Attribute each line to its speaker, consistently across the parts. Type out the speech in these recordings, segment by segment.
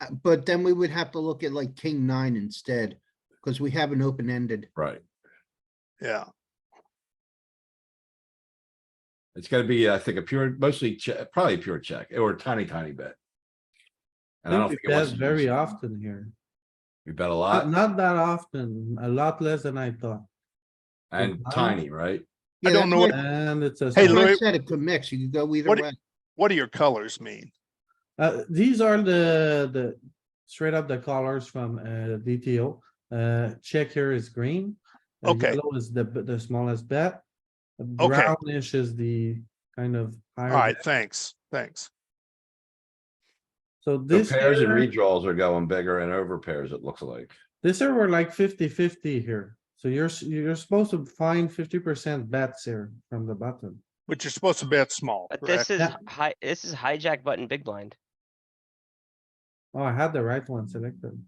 Speaker 1: Uh, But then we would have to look at like king nine instead, because we have an open ended.
Speaker 2: right?
Speaker 3: yeah,
Speaker 2: It's gonna be, I think, a pure, mostly check, probably a pure check or a tiny, tiny bet. And I don't
Speaker 4: I think
Speaker 2: think
Speaker 4: we
Speaker 2: it
Speaker 4: bet
Speaker 2: wants to do
Speaker 4: very
Speaker 2: so.
Speaker 4: often here.
Speaker 2: We bet a
Speaker 4: Not
Speaker 2: lot
Speaker 4: not that often, a lot less than I thought.
Speaker 2: and tiny, right?
Speaker 3: I don't know what-
Speaker 4: And it's a,
Speaker 3: Hey,
Speaker 4: small-
Speaker 1: I
Speaker 3: Louis-
Speaker 1: said it could mix. You could go either
Speaker 3: What-
Speaker 1: way.
Speaker 3: what do your colors mean?
Speaker 4: uh, these are the, the, straight up the colors from, uh, DTO. Uh, check here is green. uh,
Speaker 3: Okay.
Speaker 4: yellow Is the, the smallest bet. Brownish is the kind of. higher
Speaker 3: Alright,
Speaker 4: bet.
Speaker 3: thanks, thanks.
Speaker 4: So
Speaker 2: The
Speaker 4: this.
Speaker 2: pairs and
Speaker 4: here-
Speaker 2: redraws are going bigger and over pairs, it looks like.
Speaker 4: This year we're like 50-50 here, so you're, s- you're supposed to find fifty percent bets here from the button.
Speaker 3: But you're supposed to bet small,
Speaker 5: But
Speaker 3: correct?
Speaker 5: this is
Speaker 4: Yeah.
Speaker 5: hi, this is hijack button big blind.
Speaker 4: Oh, I had the right one selected.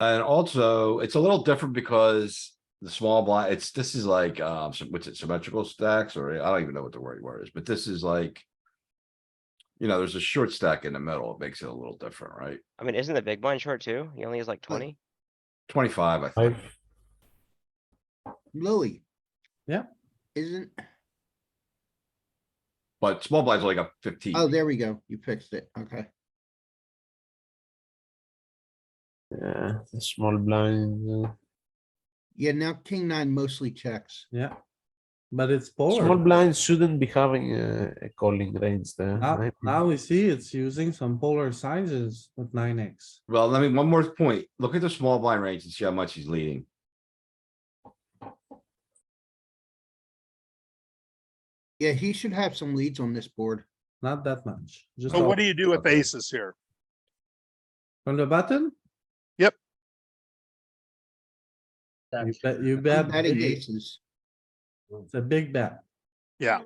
Speaker 2: And also, it's a little different because the small blind, it's, this is like, um, sym- what's it, symmetrical stacks or I don't even know what the right word is, but this is like. You know, there's a short stack in the middle. It makes it a little different, right?
Speaker 5: I mean, isn't the big blind short too? He only has like twenty.
Speaker 2: Twenty-five, I think.
Speaker 1: Louis.
Speaker 4: Yeah.
Speaker 1: Isn't,
Speaker 2: But small blinds are like a fifteen.
Speaker 1: oh, there we go. You fixed it. Okay.
Speaker 6: Yeah, the small blind. uh,
Speaker 1: Yeah, now king nine mostly checks.
Speaker 4: Yeah. But it's
Speaker 6: Small
Speaker 4: polar.
Speaker 6: blind shouldn't be having uh, a calling range there.
Speaker 4: Now,
Speaker 6: right?
Speaker 4: now we see it's using some polar sizes with nine X.
Speaker 2: Well, let me, one more point. Look at the small blind range and see how much he's leading.
Speaker 1: Yeah, he should have some leads on this board.
Speaker 4: Not that much. Just
Speaker 3: So
Speaker 4: a-
Speaker 3: what do you do with
Speaker 2: Okay.
Speaker 3: aces here?
Speaker 4: from the button?
Speaker 3: Yep.
Speaker 4: You bet, you
Speaker 1: I'm
Speaker 4: bet,
Speaker 1: betting
Speaker 4: big.
Speaker 1: aces.
Speaker 4: it's a big bet.
Speaker 3: Yeah,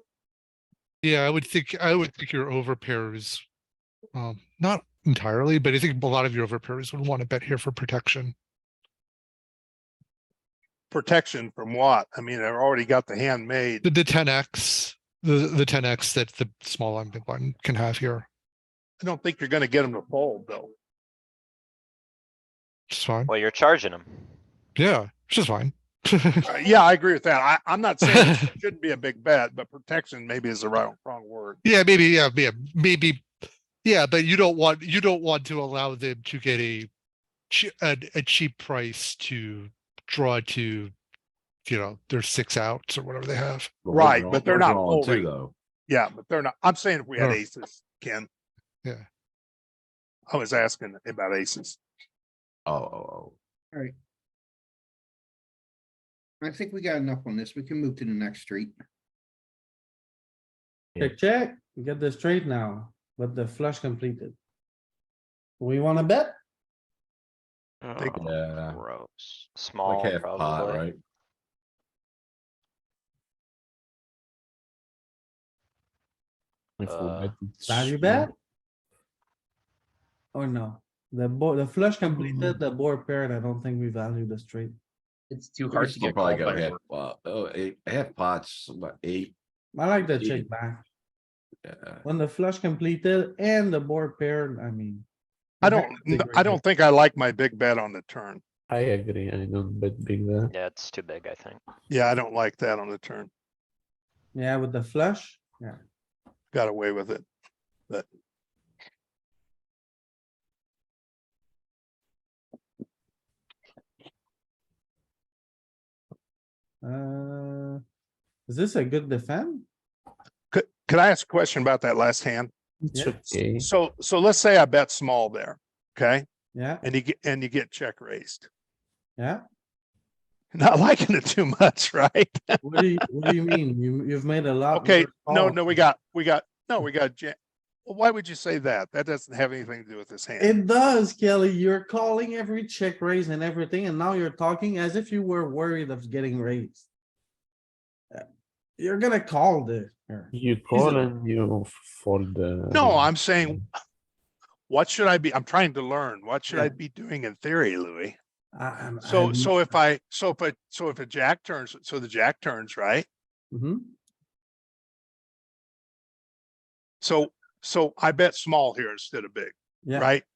Speaker 7: Yeah, I would think, I would think your overpairs, um, not entirely, but I think a lot of your overpairs would want to bet here for protection.
Speaker 3: protection from what? I mean, I've already got the hand made.
Speaker 7: The, the ten X, the, the ten X that the small and big one can have here.
Speaker 3: I don't think you're gonna get them to fold, though.
Speaker 7: It's fine.
Speaker 8: Well, you're charging him.
Speaker 7: Yeah, which is fine.
Speaker 3: Uh, Yeah, I agree with that. I, I'm not saying it shouldn't be a big bet, but protection maybe is the wrong, wrong word.
Speaker 7: Yeah, maybe, yeah, yeah, maybe, yeah, but you don't want, you don't want to allow them to get a che- a, a cheap price to draw to, you know, their six outs or whatever they have.
Speaker 2: we're
Speaker 3: Right,
Speaker 2: drawing-
Speaker 3: but they're
Speaker 2: we're
Speaker 3: not
Speaker 2: drawing too,
Speaker 3: folding.
Speaker 2: Though,
Speaker 3: Yeah, but they're not, I'm saying if we had
Speaker 7: Sure.
Speaker 3: aces, Ken.
Speaker 7: Yeah.
Speaker 3: I was asking about aces.
Speaker 2: oh, oh,
Speaker 1: I think we got enough on this. We can move to the next street.
Speaker 6: Yeah.
Speaker 4: Check, check, You get the straight now, but the flush completed. We wanna bet?
Speaker 3: Big-
Speaker 5: Oh,
Speaker 2: oh, yeah,
Speaker 5: gross.
Speaker 2: oh. like
Speaker 8: Small,
Speaker 5: Oh,
Speaker 2: half pot,
Speaker 8: probably.
Speaker 2: right?
Speaker 6: If we
Speaker 8: Uh,
Speaker 6: bet it
Speaker 4: Value
Speaker 6: small-
Speaker 4: bet? Or no? The board, the flush completed, the board paired, I don't think we value the straight.
Speaker 9: It's too
Speaker 2: We'll
Speaker 9: hard to
Speaker 2: still
Speaker 9: get
Speaker 2: probably
Speaker 9: called
Speaker 2: go
Speaker 9: by.
Speaker 2: half
Speaker 9: work.
Speaker 2: pot, oh, eight, half pots, what, eight? uh,
Speaker 4: I like the
Speaker 2: Yeah.
Speaker 4: check back.
Speaker 2: Yeah.
Speaker 4: When the flush completed and the board paired, I mean.
Speaker 3: I
Speaker 4: you have
Speaker 3: don't,
Speaker 4: to figure
Speaker 3: I
Speaker 4: it
Speaker 3: don't
Speaker 4: out.
Speaker 3: think I like my big bet on the turn.
Speaker 6: I agree. I don't bet big there.
Speaker 8: Yeah, it's too big, I think.
Speaker 3: Yeah, I don't like that on the turn.
Speaker 4: Yeah, with the flush, yeah.
Speaker 3: Got away with it.
Speaker 4: Uh, is this a good defend?
Speaker 3: Could, could I ask a question about that last hand?
Speaker 6: It's
Speaker 4: Yeah.
Speaker 6: okay.
Speaker 3: So, so let's say I bet small there, okay?
Speaker 4: Yeah,
Speaker 3: And you get, and you get check raised.
Speaker 4: yeah.
Speaker 3: Not liking it too much, right?
Speaker 4: What do you, what do you mean? You, you've made a lot.
Speaker 3: Okay,
Speaker 4: worse
Speaker 3: no,
Speaker 4: calls.
Speaker 3: no, we got, we got, no, we got jam. Well, why would you say that? That doesn't have anything to do with this hand.
Speaker 4: It does, Kelly. You're calling every check raise and everything, and now you're talking as if you were worried of getting raised. Uh, You're gonna call this. here.
Speaker 6: You call and you fold. Uh,
Speaker 3: No, I'm saying, what should I be? I'm trying to learn. What should I be doing in theory, Louis?
Speaker 4: I- I'm-
Speaker 3: So,
Speaker 4: I'm-
Speaker 3: so if I, so if I, so if a jack turns, so the jack turns, right?
Speaker 4: Mhm.
Speaker 3: So, so I bet small here instead of big,
Speaker 4: Yeah,
Speaker 3: right?